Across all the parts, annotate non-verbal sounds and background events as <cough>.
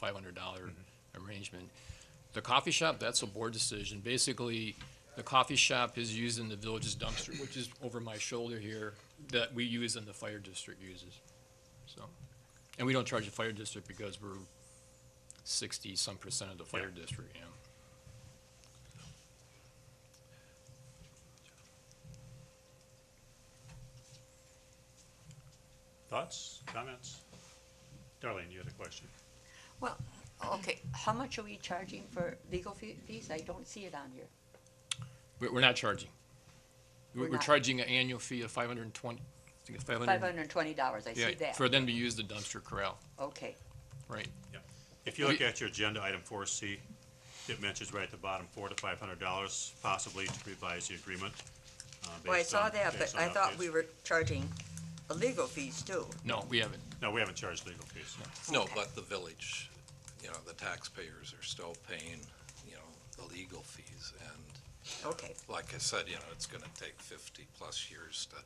five hundred dollar arrangement. The coffee shop, that's a board decision. Basically, the coffee shop is used in the village's dumpster, which is over my shoulder here, that we use and the fire district uses, so. And we don't charge the fire district because we're sixty-some percent of the fire district, yeah. Thoughts, comments? Darlene, you had a question. Well, okay, how much are we charging for legal fee- fees? I don't see it on here. We're, we're not charging. We're, We're we're not. charging an annual fee of five hundred and twenty, I think it's five Five hundred. hundred and twenty dollars, I see that. For them to use the dumpster corral, Okay, right? If you look We- at your agenda, item four C, it mentions right at the bottom, four to five hundred dollars possibly to revise the agreement. uh, Well, I based saw on- that, but based on I thought updates. we were charging illegal fees too. No, we haven't. No, we haven't charged legal fees. No, Okay. but the village, you know, the taxpayers are still paying, you know, the legal fees. And Okay, like I said, you know, it's going to take 50-plus years to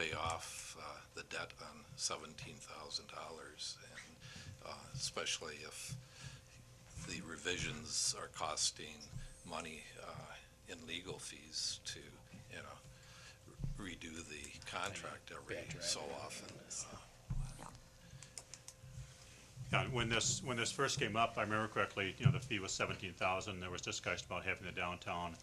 pay off uh, the debt on $17,000. And uh, especially if the revisions are costing money uh, in legal fees to, you know, redo the contract every so often. Uh, Yeah, when this, when this first came up, I remember correctly, you know, the fee was seventeen thousand, there was discussion about having the downtown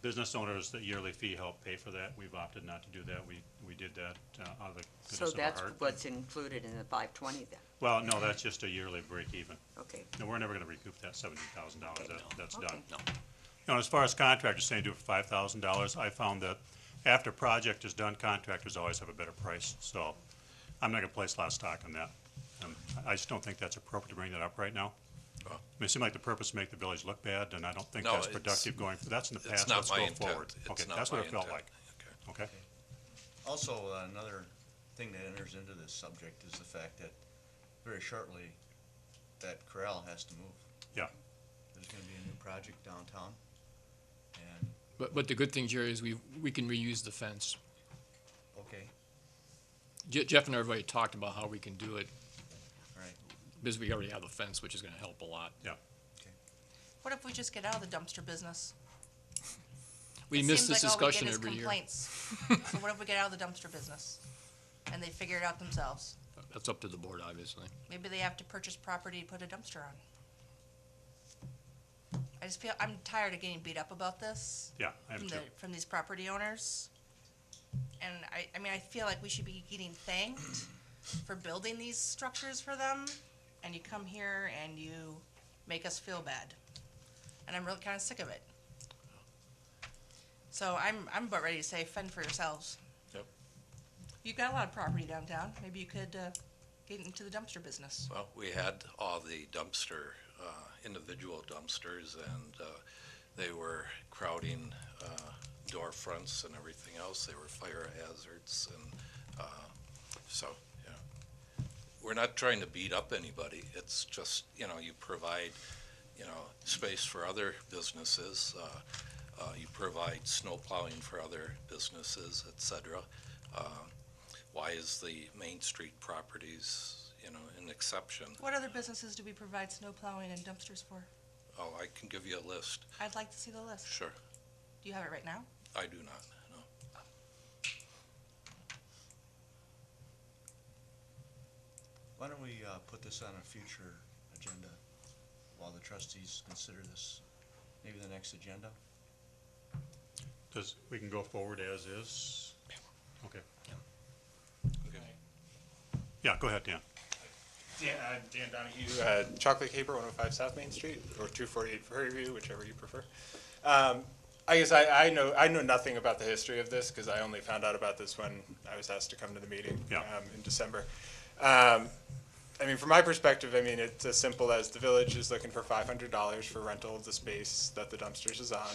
business owners, the yearly fee help pay for that, we've opted not to do that, we, we did that uh, out of the so goodness of our that's heart. what's included in the five twenty then, Well, no, that's just a yearly break even, okay. no, we're never gonna recoup that seventeen thousand dollars, that, that's done. Okay. No. You know, as far as contractors saying do it for five thousand dollars, I found that after project is done, contractors always have a better price, so I'm not gonna place a lot of stock on that. Um, I I just don't think that's appropriate to bring that up right now. I mean, it seemed like the purpose to make the village look bad, and I don't think No, that's it's- productive going, that's in the It's past, not let's my go intent. forward. It's Okay, not that's what my it felt intent. like, Okay. okay? Also, uh, another thing that enters into this subject is the fact that very shortly, that corral has to move. Yeah. There's gonna be a new project downtown, and, But, but the good thing, Jerry, is we, we can reuse the fence. okay, Je- Jeff and everybody talked about how we can do it, all right, because we already have a fence, which is gonna help a lot. What if we just get out of the dumpster business? We It miss seems this like all we get discussion is every year. <laughs> complaints. So what if we get out of the dumpster business? And they figure it out themselves? That's up to the board, obviously. Maybe they have to purchase property to put a dumpster on. I just feel, I'm tired of getting beat up about this Yeah, I am from too. the, from these property owners. And I, I mean, I feel like we should be getting thanked for building these structures for them, and you come here and you make us feel bad. And I'm really kinda sick of it. So I'm, I'm about ready to say fend for yourselves. Yep. You've got a lot of property downtown, maybe you could, uh, get into the dumpster business. Well, we had all the dumpster, uh, individual dumpsters, and uh, they were crowding uh, door fronts and everything else. They were fire hazards, and uh, so, you know, we're not trying to beat up anybody. It's just, you know, you provide, you know, space for other businesses. uh, uh, You provide snow plowing for other businesses, et cetera. Uh, Why is the Main Street properties, you know, an exception? What other businesses do we provide snow plowing and dumpsters for? Oh, I can give you a list, I'd like to see the list. sure. Do you have it right now? I do not, no. why don't we, uh, put this on a future agenda while the trustees consider this, maybe the next agenda? Does, we can go forward as is? Okay. Yeah, go ahead, Dan. Dan, uh, Dan Donahue, uh, Chocolate Caper, 105 South Main Street, or 248 Prairie View, whichever you prefer. Um, I guess I, I know I know nothing about the history of this because I only found out about this when I was asked to come to the meeting Yeah. um, in December. Um, I mean, from my perspective, I mean it's as simple as the village is looking for five hundred dollars for rental of the space that the dumpsters is on,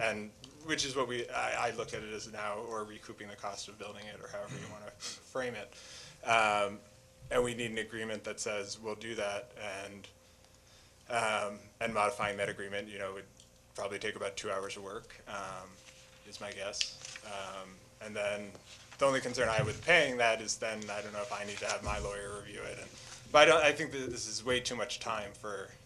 and which is what we I, I look at it as now, or recouping the cost of building it, or however you want to frame it. Um, and we need an agreement that says we'll do that, and um, and modifying that agreement, you know, would probably take about two hours of work, um, is my guess. Um, and then the only concern I have with paying that is then I don't know if I need to have my lawyer review it and But I don't, I think that this is way too much time for